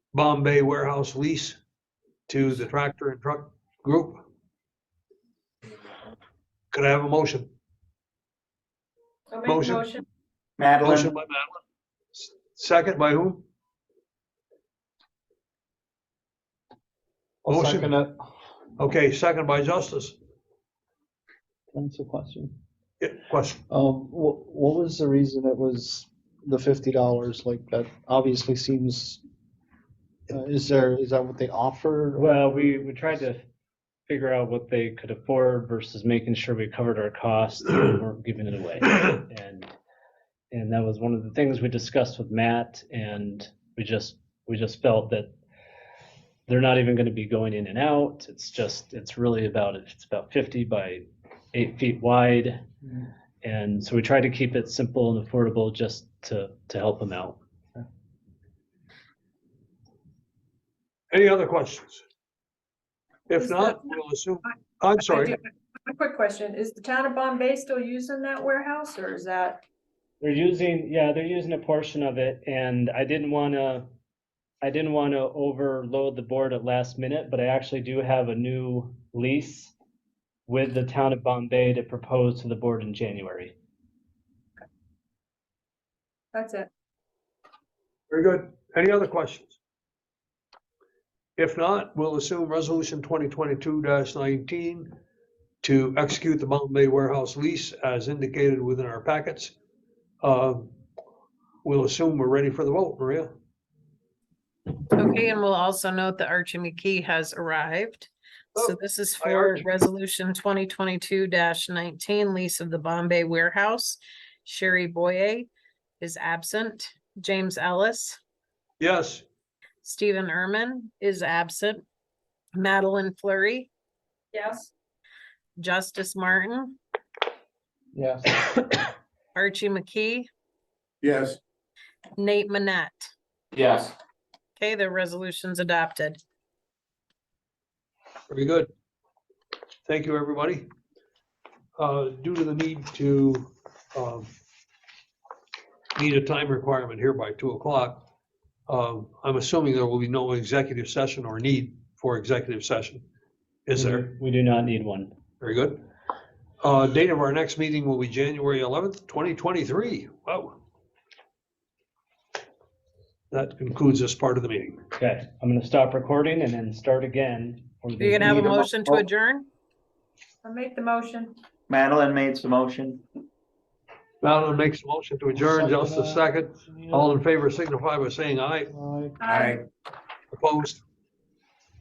Bombay warehouse lease to the tractor and truck group. Could I have a motion? I'll make a Motion. motion. Motion Madeline, by Madeline. S- Second by whom? I'll Motion. second it. Okay, second by Justice. That's a uh, question. Yeah, Question. Um, what, what was the reason it was the fifty dollars? Like, that obviously seems, uh, is there, is that what they offered? Well, we, we tried to figure out what they could afford versus making sure we covered our costs and weren't giving it away. And, and that was one of the things we discussed with Matt and we just, we just felt that they're not even gonna be going in and out. It's just, it's really about, it's about fifty by eight feet wide. Mm. And so we tried to keep it simple and affordable just to, to help them out. Any other questions? If not, we'll assume, I'm I sorry, do- A quick question, is the town of Bombay still using that warehouse or is that, They're using, yeah, they're using a portion of it, and I didn't wanna, I didn't wanna overload the board at last minute, but I actually do have a new lease with the town of Bombay to propose to the board in January. that's it? very good. Any other questions? If not, we'll assume resolution twenty twenty-two nineteen to execute the Bombay warehouse lease as indicated within our packets. Um, We'll assume we're ready for the vote, Maria. Okay, and we'll also note that Archie McKee has arrived. Oh, So this is hi, for Archie. resolution twenty twenty-two nineteen, lease of the Bombay warehouse. Sherry Boye is absent. James Ellis, Yes, Stephen Erman is absent. Madeline Flurry, Yes. Justice Martin, Yes. Archie McKee, yes. Nate Manette. Yes. Okay, the resolution's adopted. very good. Thank you, everybody. Uh, Due to the need to, um, need a time requirement here by two o'clock, um, I'm assuming there will be no executive session or need for executive session. Is there? We do not need one. Very good. Uh, Date of our next meeting will be January 11th, 2023. Wow. That concludes this part of the meeting. Okay, I'm gonna stop recording and then start again. for the- You're gonna have a Need a mo- motion to oh. adjourn? I'll make the motion. Madeline made the motion. Madeline makes a motion to adjourn. Just a second. All in favor signify by saying aye. Like, Aye. Opposed?